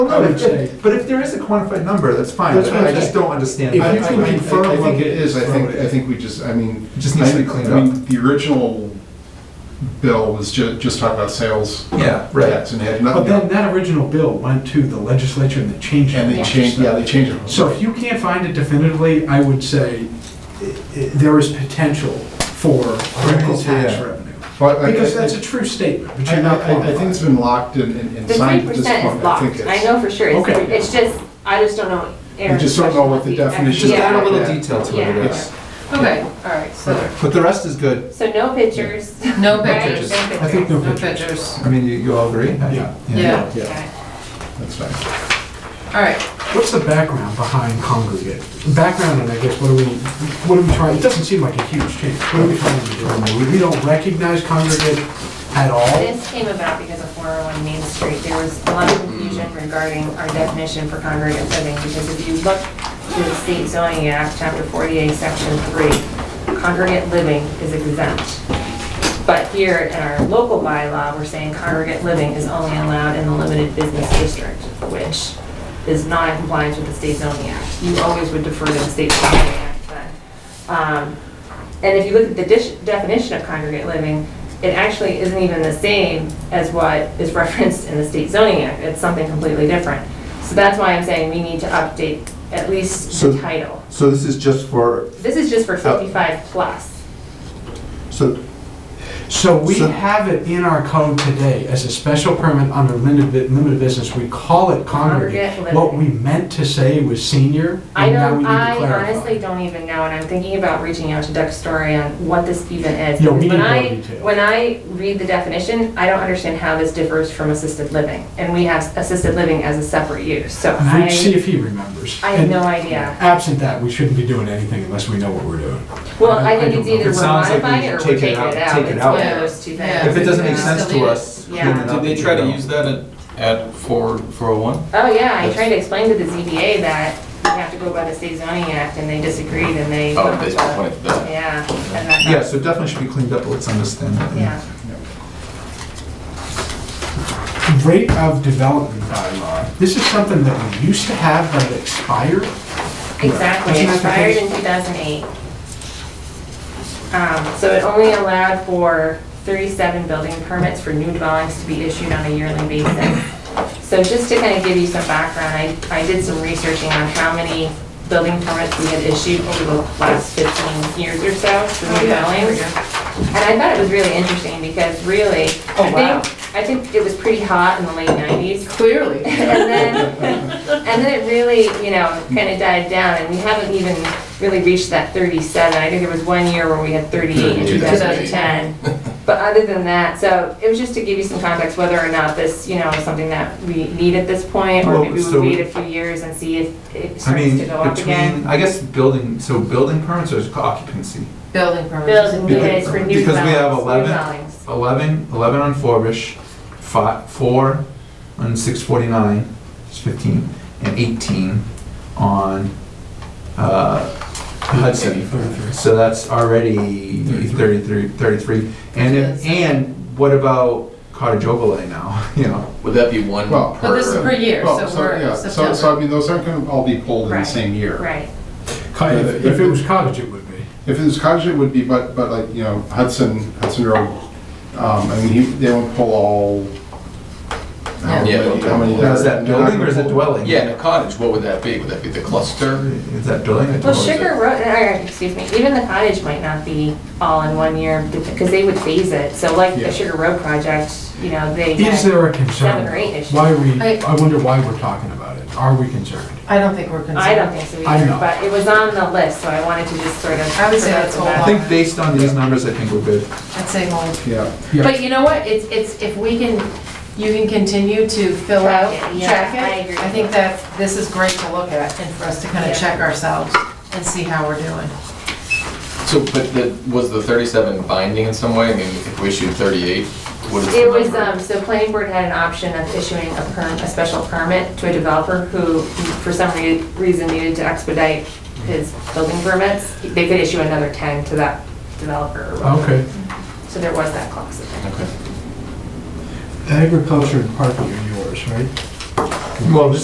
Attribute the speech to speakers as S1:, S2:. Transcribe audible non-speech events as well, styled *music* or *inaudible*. S1: Well,
S2: I
S1: no,
S2: would
S1: if-
S2: say-
S1: But if there is a quantified number, that's fine,
S2: That's
S1: but
S2: what
S1: I
S2: I'm
S1: just
S2: saying.
S1: don't understand.
S2: If
S1: that.
S3: I,
S2: you
S3: I-
S2: can
S3: I- I
S2: confirm what
S3: think it is, I
S2: is
S3: think,
S2: voted.
S3: I think we just, I mean.
S1: Just needs to be
S3: I-
S1: cleaned
S3: I mean,
S1: up.
S3: The original bill was ju- just talking about sales.
S1: Yeah, right.
S3: tax And had
S2: But
S3: nothing,
S2: then
S3: and
S2: that original bill went to the legislature and they changed it.
S3: they changed, yeah, they changed it.
S2: So if you can't find it definitively, I would say i- i- there is potential for local
S1: Right, yeah.
S2: tax revenue.
S3: But I-
S2: Because
S3: I-
S2: that's a true statement, but
S3: I,
S2: you're not
S3: I- I think it's
S2: qualified.
S3: been locked and, and- and
S4: The three
S3: signed at this
S4: percent is
S3: point, I think
S4: locked,
S3: it's.
S4: I know for sure,
S2: Okay.
S4: it's, it's just, I just don't know.
S3: We just don't know what the
S4: Aaron's question would be.
S3: definition
S1: Just
S3: is.
S1: add a
S4: Yeah.
S1: little
S3: Yeah.
S1: detail to it, I
S4: Yeah.
S1: guess.
S5: Okay, all right, so,
S1: But the rest is good.
S4: So no pictures.
S5: no
S1: Okay,
S5: pictures,
S1: just-
S2: I think no
S5: no
S2: pictures.
S5: pictures.
S1: I mean, you, you all agree? I-
S2: Yeah.
S5: Yeah,
S1: Yeah.
S3: That's fine.
S5: all right,
S2: What's the background behind congregate? Background, and I guess, what are we, what are we trying, it doesn't seem like a huge change. What are we trying to do? We don't recognize congregate at all?
S4: This came about because of 401 Main Street. There was a lot of confusion regarding our definition for congregate living, because if you look to the State Zoning Act, Chapter 48, Section 3, congregate living is exempt. But here in our local bylaw, we're saying congregate living is only allowed in the limited business district, which is not in compliance with the State Zoning Act. You always would defer to the State Zoning Act then. Um, And if you look at the dish- definition of congregate living, it actually isn't even the same as what is referenced in the State Zoning Act. It's something completely different. So that's why I'm saying we need to update at least
S1: So-
S4: the title.
S1: So this is just for,
S4: This is just for 55 plus.
S1: so,
S2: So we
S1: So-
S2: have it in our code today as a special permit under limited, bu- limited business, we call it congregate.
S4: Congregate
S2: What we
S4: living.
S2: meant to say was senior,
S4: I
S2: and now we
S4: don't,
S2: need to
S4: I
S2: clarify.
S4: honestly don't even know, and I'm thinking about reaching out to Doug Story on what this even is.
S2: Yeah, we
S4: Because
S2: need more detail.
S4: When I, when I read the definition, I don't understand how this differs from assisted living, and we have assisted living as a separate use, so
S2: And we'd see
S4: I,
S2: if he remembers.
S4: I have
S2: And
S4: no idea.
S2: Absent that, we shouldn't be doing anything unless we know what we're doing.
S4: Well, I think
S2: don't
S4: it's
S2: know.
S4: either
S1: It
S4: we're
S1: sounds like we
S4: modifying it or
S1: should
S4: we're taking it out,
S1: take it
S4: it's
S1: out.
S4: one of those two
S5: Yeah.
S4: things.
S1: if it doesn't make
S5: Yeah.
S1: sense to us. clean
S4: Yeah.
S1: it up.
S6: Did they try to use that at, at four, four oh one?
S4: Oh, yeah, I tried to explain to the ZBA that we have to go by the state zoning act, and they disagreed, and they.
S6: Oh, they pointed to that.
S4: Yeah. and that-
S1: Yeah, so it definitely should be cleaned up, let's understand that.
S4: Yeah.
S2: Rate of development bylaw. This is something that we used to have that expired.
S4: Exactly,
S2: Isn't that
S4: it
S2: the
S4: expired
S2: case?
S4: in 2008. Um, So it only allowed for 37 building permits for new dwellings to be issued on a yearly basis. So just to kind of give you some background, I, I did some researching on how many building permits we had issued over the last 15 years or so for
S5: Oh,
S4: new dwellings. And I thought it was really interesting because really,
S5: Oh,
S4: I
S5: wow.
S4: think, I think it was pretty hot in the late 90s.
S5: clearly.
S4: And then, and then it really, you know, kind of died down, and we haven't even really reached that 37. I think there was one year where we had 38 in 2010. But other than that, so it was just to give you some context whether or not this, you know, is something that we need at this point, or
S1: Well,
S4: maybe
S1: so-
S4: we'll wait a few years and see if it
S1: I
S4: starts
S1: mean,
S4: to go up
S1: between,
S4: again.
S1: I guess building, so building permits or is it occupancy?
S5: Building permits.
S4: Building permits for new dwellings.
S1: Because we have
S4: new
S1: 11
S4: dwellings.
S1: 11, 11 on Forbush, fi- 4 on 649, it's 15, and 18 on uh, Hudson. So that's already 33, 33. And, if- and what about cottage overlay now, *laughs* you know?
S6: Would that be one
S3: Well-
S6: per?
S5: But this is per year,
S3: Well,
S5: so we're
S3: yeah, So, so I
S5: September.
S3: mean, those aren't gonna all be pulled in the
S4: Right,
S3: same year.
S4: Right.
S2: If if it was cottage, it would be.
S3: If it was cottage, it would be, but, but like, you know, Hudson, Hudson Road, um, I mean, he- they won't pull all. how
S6: Yeah.
S3: many- how many
S1: Now, Is that
S3: they're not
S1: building or is
S3: gonna
S1: it
S3: pull-
S1: dwelling?
S6: Yeah, in a cottage, what would that be? Would that be the cluster?
S1: Is that building or
S4: Well,
S1: dwelling?
S4: Sugar Road, or, excuse me, even the cottage might not be all in one year, because they would phase it, so like
S3: Yeah.
S4: the Sugar Road project, you know, they.
S2: Is
S4: had-
S2: there a concern?
S4: Seven or eight issues.
S2: Why we,
S5: I-
S2: I wonder why we're talking about it. Are we concerned?
S5: I don't think we're concerned.
S4: I don't think so
S2: I
S4: either,
S2: know.
S4: but it was on the list, so I wanted to just sort of.
S5: I would say that's
S4: provide
S5: all
S1: I
S4: that.
S1: think based on these numbers, I think we're good.
S5: I'd say hold.
S3: Yeah.
S2: Yeah.
S5: But you know what, it's, it's, if we can, you can continue to fill
S4: Track
S5: out,
S4: it, yeah,
S5: track
S4: I
S5: it.
S4: agree.
S5: I think that this is great to look at and for us to kind
S4: Yeah.
S5: of check ourselves and see how we're doing.
S6: So, but the, was the thirty-seven binding in some way? I mean, if we issued thirty-eight, what is the
S4: It was,
S6: number?
S4: um, so planning board had an option of issuing a perm, a special permit to a developer who, for some rea- reason needed to expedite his building permits. They could issue another ten to that developer, or whatever.
S2: Okay.
S4: so there was that um, clause in there.
S6: Okay.
S2: Agriculture and parking are yours, right?
S1: Well, this